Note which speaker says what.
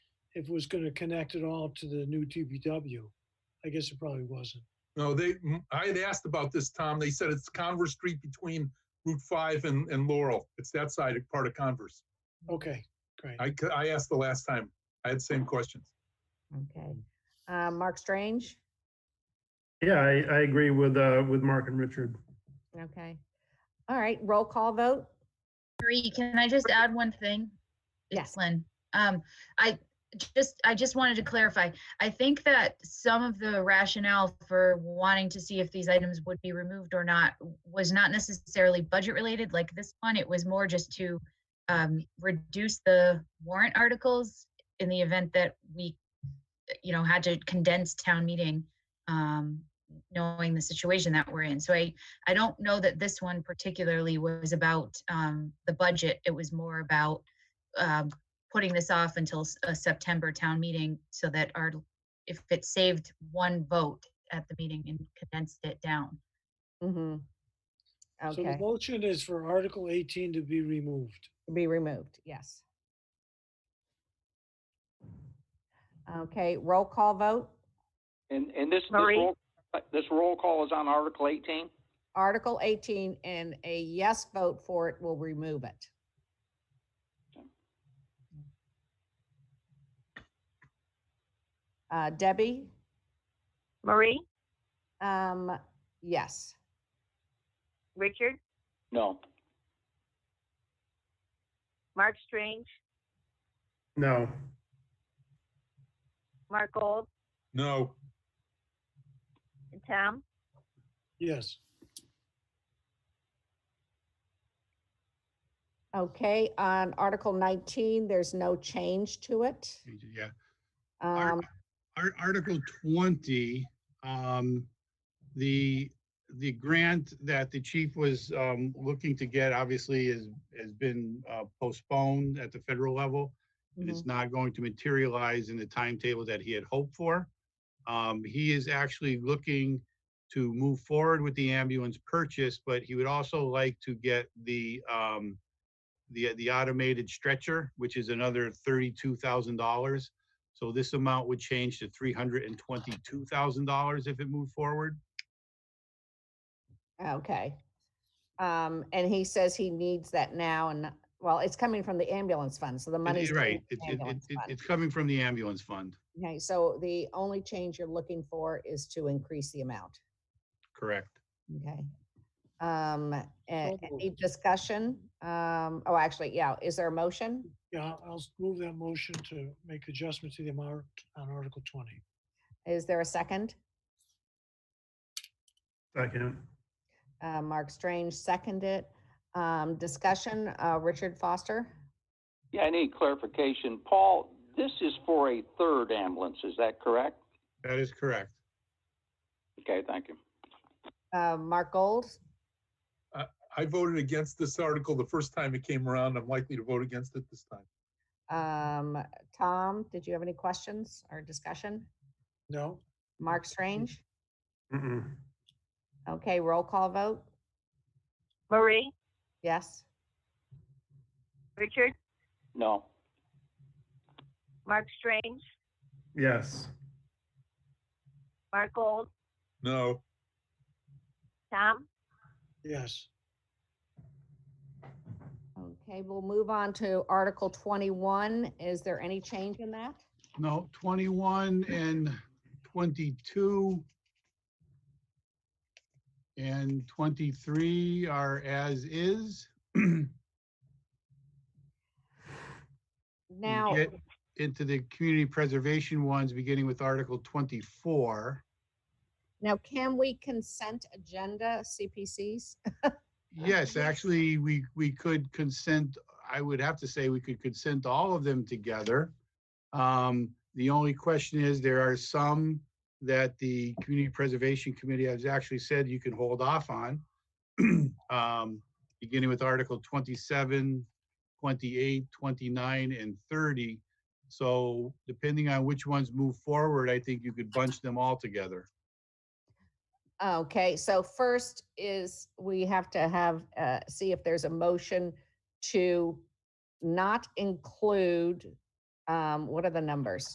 Speaker 1: if it was going to connect at all to the new DPW. I guess it probably wasn't.
Speaker 2: No, they, I had asked about this, Tom. They said it's Converse Street between Route 5 and, and Laurel. It's that side, part of Converse.
Speaker 1: Okay, great.
Speaker 2: I, c- I asked the last time. I had the same questions.
Speaker 3: Okay. Uh, Mark Strange?
Speaker 4: Yeah, I, I agree with, uh, with Mark and Richard.
Speaker 3: Okay. All right, roll call vote?
Speaker 5: Marie, can I just add one thing? It's
Speaker 3: Yes.
Speaker 5: Lynn. Um, I just, I just wanted to clarify. I think that some of the rationale for wanting to see if these items would be removed or not was not necessarily budget related like this one. It was more just to um, reduce the warrant articles in the event that we, you know, had to condense town meeting, um, knowing the situation that we're in. So I, I don't know that this one particularly was about um, the budget. It was more about um, putting this off until s- a September town meeting so that our, if it saved one vote at the meeting and condensed it down.
Speaker 3: Mm-hmm.
Speaker 1: So the
Speaker 3: Okay,
Speaker 1: motion is for Article 18 to be removed.
Speaker 3: be removed, yes. Okay, roll call vote?
Speaker 6: And, and this, this
Speaker 7: Marie?
Speaker 6: roll, uh, this roll call is on Article 18?
Speaker 3: Article 18 and a yes vote for it will remove it. Uh, Debbie?
Speaker 7: Marie,
Speaker 3: Um, yes.
Speaker 7: Richard,
Speaker 6: No.
Speaker 7: Mark Strange,
Speaker 4: No,
Speaker 7: Mark Gold,
Speaker 2: No,
Speaker 7: and Tom.
Speaker 1: Yes.
Speaker 3: Okay, on Article 19, there's no change to it.
Speaker 8: Yeah. Art-
Speaker 3: Um,
Speaker 8: Art- Article twenty, um, the, the grant that the chief was, um, looking to get obviously is, has been uh, postponed at the federal level. and
Speaker 3: mhm.
Speaker 8: It's not going to materialize in the timetable that he had hoped for. Um, he is actually looking to move forward with the ambulance purchase, but he would also like to get the, um, the, the automated stretcher, which is another thirty-two thousand dollars. So this amount would change to three hundred and twenty-two thousand dollars if it moved forward.
Speaker 3: Okay. Um, and he says he needs that now and, not- well, it's coming from the ambulance fund, so the
Speaker 8: And
Speaker 3: money's.
Speaker 8: it-
Speaker 3: coming
Speaker 8: Right,
Speaker 3: from
Speaker 8: it,
Speaker 3: the
Speaker 8: it, it,
Speaker 3: ambulance
Speaker 8: it-
Speaker 3: fund.
Speaker 8: it's coming from the ambulance fund,
Speaker 3: Okay, so the only change you're looking for is to increase the amount,
Speaker 8: correct?
Speaker 3: okay? Um, a- any
Speaker 1: moved.
Speaker 3: discussion? Um, oh, actually, yeah, is there a motion?
Speaker 1: Yeah, I'll- I'll move that motion to make adjustment to the amount on Article 20.
Speaker 3: Is there a second?
Speaker 4: second.
Speaker 3: Uh, Mark Strange seconded. Um, discussion, uh, Richard Foster?
Speaker 6: Yeah, I need clarification. Paul, this is for a third ambulance, is that correct?
Speaker 8: That is correct.
Speaker 6: Okay, thank you.
Speaker 3: Uh, Mark Gold?
Speaker 2: I voted against this article the first time it came around. I'm likely to vote against it this time.
Speaker 3: Um, Tom, did you have any questions or discussion?
Speaker 1: No?
Speaker 3: Mark Strange?
Speaker 4: Mm-mm.
Speaker 3: Okay, roll call vote?
Speaker 7: Marie,
Speaker 3: Yes?
Speaker 7: Richard,
Speaker 6: No.
Speaker 7: Mark Strange,
Speaker 4: Yes,
Speaker 7: Mark Gold,
Speaker 2: No,
Speaker 7: Tom.
Speaker 1: Yes.
Speaker 3: Okay, we'll move on to Article 21. Is there any change in that?
Speaker 8: No, 21 and 22 and 23 are as is. You
Speaker 3: Now,
Speaker 8: get Into the community preservation ones, beginning with Article 24.
Speaker 3: now can we consent agenda CPCs?
Speaker 8: Yes, actually, we, we could consent, I would have to say we could consent all of them together. Um, the only question is, there are some that the Community Preservation Committee has actually said you can hold off on. Um, beginning with Article 27, 28, 29, and thirty. So depending on which ones move forward, I think you could bunch them all together.
Speaker 3: Okay, so first is we have to have, uh, see if there's a motion to not include Um, what are the numbers?